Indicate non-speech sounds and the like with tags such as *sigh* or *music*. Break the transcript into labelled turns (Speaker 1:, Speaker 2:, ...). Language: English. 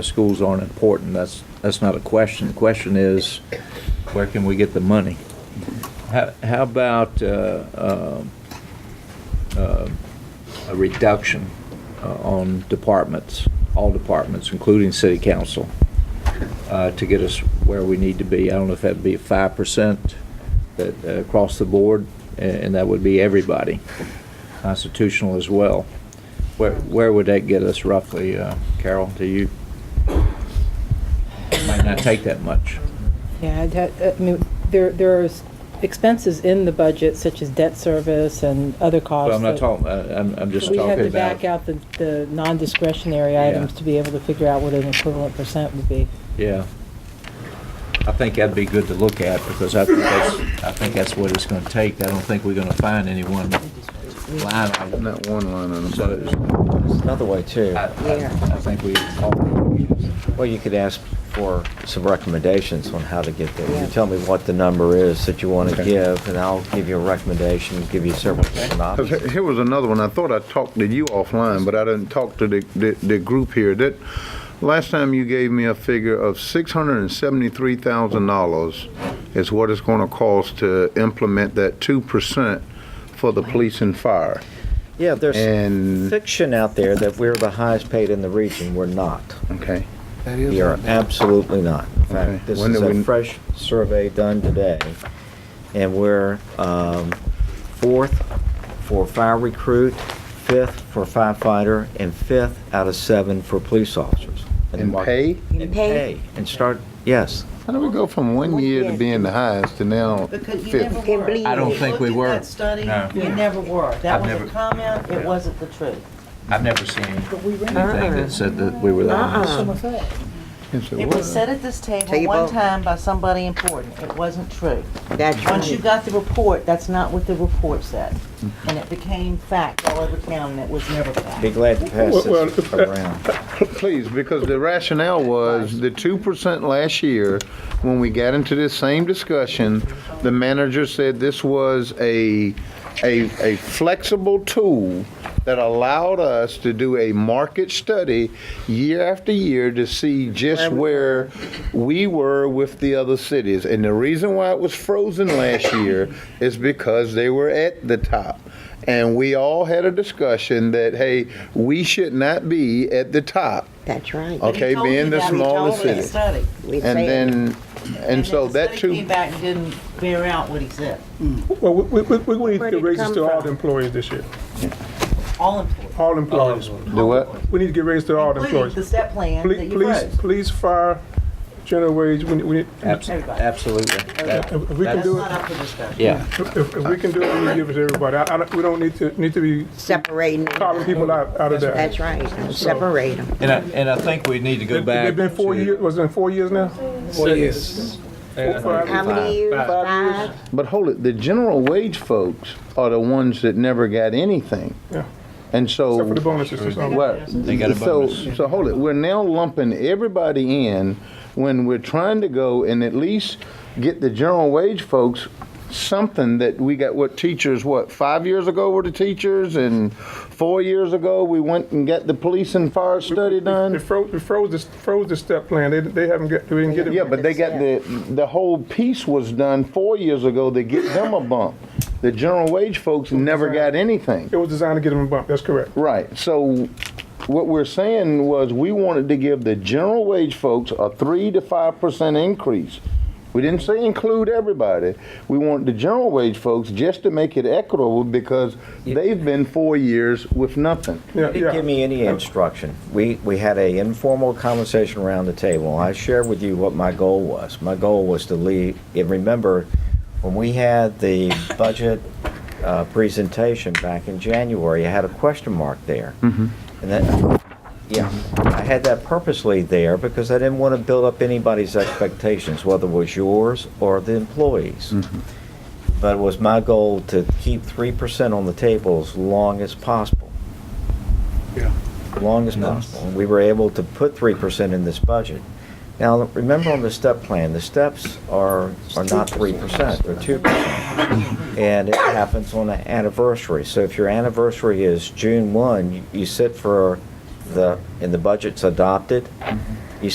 Speaker 1: Schools aren't important, that's, that's not a question. The question is, where can we get the money? How, how about uh, um, uh, a reduction uh, on departments, all departments, including city council, uh, to get us where we need to be? I don't know if that'd be 5% that, uh, across the board, a- and that would be everybody, constitutional as well. Where, where would that get us roughly, uh, Carol, to you? Might not take that much.
Speaker 2: Yeah, that, I mean, there, there are expenses in the budget such as debt service and other costs.
Speaker 1: Well, I'm not
Speaker 2: that-
Speaker 1: talking, uh, I'm, I'm just
Speaker 2: We had
Speaker 1: talking
Speaker 2: to back
Speaker 1: about,
Speaker 2: out the, the non-discretionary
Speaker 1: Yeah.
Speaker 2: items to be able to figure out what an equivalent percent would be.
Speaker 1: yeah. I think that'd be good to look at, because I think that's, I think that's what it's gonna take. I don't think we're gonna find any one line item.
Speaker 3: Not one line on
Speaker 1: So,
Speaker 3: them,
Speaker 4: Another way too,
Speaker 3: Uh,
Speaker 1: I, I I think we all,
Speaker 4: well, you could ask for some recommendations on how to get there.
Speaker 2: Yeah.
Speaker 4: You tell me what the number is that you want to
Speaker 3: Okay.
Speaker 4: give, and I'll give you a recommendation, give you several different
Speaker 3: but.
Speaker 4: options.
Speaker 3: 'Cause Here was another one, I thought I talked to you offline, but I didn't talk to the, the, the group here. That, last time you gave me a figure of six hundred and seventy-three thousand dollars is what it's gonna cost to implement that two percent for the police and fire.
Speaker 4: Yeah, there's
Speaker 3: And-
Speaker 4: fiction out there that we're the highest paid in the region. We're not.
Speaker 3: Okay,
Speaker 4: We are absolutely not. In
Speaker 3: Okay.
Speaker 4: fact, this
Speaker 3: When
Speaker 4: is
Speaker 3: do we-
Speaker 4: a fresh survey done today, and we're um, fourth for fire recruit, fifth for firefighter, and fifth out of seven for police officers. in the
Speaker 3: And
Speaker 4: market.
Speaker 5: pay?
Speaker 4: And
Speaker 5: In pay?
Speaker 4: pay, and start, yes.
Speaker 3: how do we go from one year to being the highest to now
Speaker 5: Because you
Speaker 3: fifth?
Speaker 5: never
Speaker 3: Okay,
Speaker 5: were.
Speaker 1: it. I don't think we
Speaker 5: Looked at
Speaker 1: were.
Speaker 5: that study,
Speaker 1: No.
Speaker 5: you never were. That
Speaker 1: I've
Speaker 5: was
Speaker 1: never-
Speaker 5: a comment, it wasn't the truth.
Speaker 1: I've never seen anything that said that we were the highest.
Speaker 5: Uh-uh.
Speaker 3: so
Speaker 5: It
Speaker 3: what?
Speaker 5: was said at this
Speaker 6: Tell
Speaker 5: table
Speaker 6: you
Speaker 5: one
Speaker 6: what.
Speaker 5: time by somebody important. It wasn't true.
Speaker 6: That's
Speaker 5: Once you
Speaker 6: right.
Speaker 5: got the report, that's not what the report said. And it became fact all over town, and it was never fact.
Speaker 4: Be glad to pass this around.
Speaker 3: Please, because the rationale was the two percent last year, when we got into this same discussion, the manager said this was a, a, a flexible tool that allowed us to do a market study year after year to see just where we were with the other cities. And the reason why it was frozen last year is because they were at the top. And we all had a discussion that, hey, we should not be at the top.
Speaker 6: That's right.
Speaker 3: Okay.
Speaker 5: He told
Speaker 3: being
Speaker 5: you
Speaker 3: the
Speaker 5: that. He told
Speaker 3: smaller
Speaker 5: us in the
Speaker 3: city.
Speaker 5: study.
Speaker 6: We
Speaker 3: Oh, And
Speaker 6: say it.
Speaker 3: then, and so
Speaker 5: the
Speaker 3: that
Speaker 5: study
Speaker 3: too,
Speaker 5: Came back and didn't bear out what he said.
Speaker 7: Well, we, we, we- we
Speaker 6: Where'd
Speaker 7: need to
Speaker 6: it
Speaker 7: get raises
Speaker 6: come
Speaker 7: to all
Speaker 6: from?
Speaker 7: the employees this year,
Speaker 5: All employees.
Speaker 7: all employees.
Speaker 3: the what?
Speaker 7: We need to get raises to all the
Speaker 5: Including
Speaker 7: employees.
Speaker 5: the step plan that
Speaker 7: Police,
Speaker 5: you
Speaker 7: police,
Speaker 5: wrote.
Speaker 7: police, fire, general wage, we, need- we, need-
Speaker 1: Abs-
Speaker 5: Everybody.
Speaker 1: Absolutely.
Speaker 7: if if we can
Speaker 5: That's
Speaker 7: do it,
Speaker 5: not up for discussion.
Speaker 1: Yeah,
Speaker 7: if, if we can do it, we need to give it to everybody. I, I, don't- we don't need to, need to be
Speaker 6: Separating.
Speaker 7: carving people out, out of that.
Speaker 6: That's right. Separate them.
Speaker 1: and I, and I think we need to go
Speaker 7: It's
Speaker 1: back.
Speaker 7: been four
Speaker 1: to-
Speaker 7: years, was it four years now? Four
Speaker 6: How
Speaker 7: years.
Speaker 6: many years?
Speaker 7: Five
Speaker 6: Five?
Speaker 3: But hold it, the general wage folks are the ones that never got anything.
Speaker 7: Yeah.
Speaker 3: And so.
Speaker 7: Except for the bonuses or something.
Speaker 3: Well,
Speaker 1: They got a
Speaker 3: so,
Speaker 1: bonus.
Speaker 3: so hold it, we're now lumping everybody in when we're trying to go and at least get the general wage folks something that we got, what teachers, what, five years ago were the teachers and four years ago, we went and got the police and fire study
Speaker 7: We
Speaker 3: done?
Speaker 7: froze, we froze the, froze the step plan. They, they haven't get, we didn't get it.
Speaker 3: Yeah, but they got the, the whole piece was done four years ago to get them a bump. The general wage folks never got anything.
Speaker 7: It was designed to get them a bump, that's correct.
Speaker 3: Right. So what we're saying was we wanted to give the general wage folks a three to five percent increase. We didn't say include everybody. We want the general wage folks just to make it equitable because they've been four years with nothing.
Speaker 7: Yeah,
Speaker 4: didn't give
Speaker 7: yeah.
Speaker 4: me any instruction. We, we had a informal conversation around the table. I shared with you what my goal was. My goal was to leave, and remember, when we had
Speaker 7: *laughs*
Speaker 4: the budget uh, presentation back in January, I had a question mark there.
Speaker 7: Mm-hmm.
Speaker 4: And that, yeah, I had that purposely there because I didn't want to build up anybody's expectations, whether it was yours or the employees.
Speaker 7: Mm-hmm.
Speaker 4: But it was my goal to keep 3% on the table as long as possible long as possible. And we were able to put three percent in this budget. Now, remember on the step plan, the steps are, are not three percent, they're two percent. And it happens on an anniversary. So if your anniversary is June one, you- you sit for the, and the budget's adopted,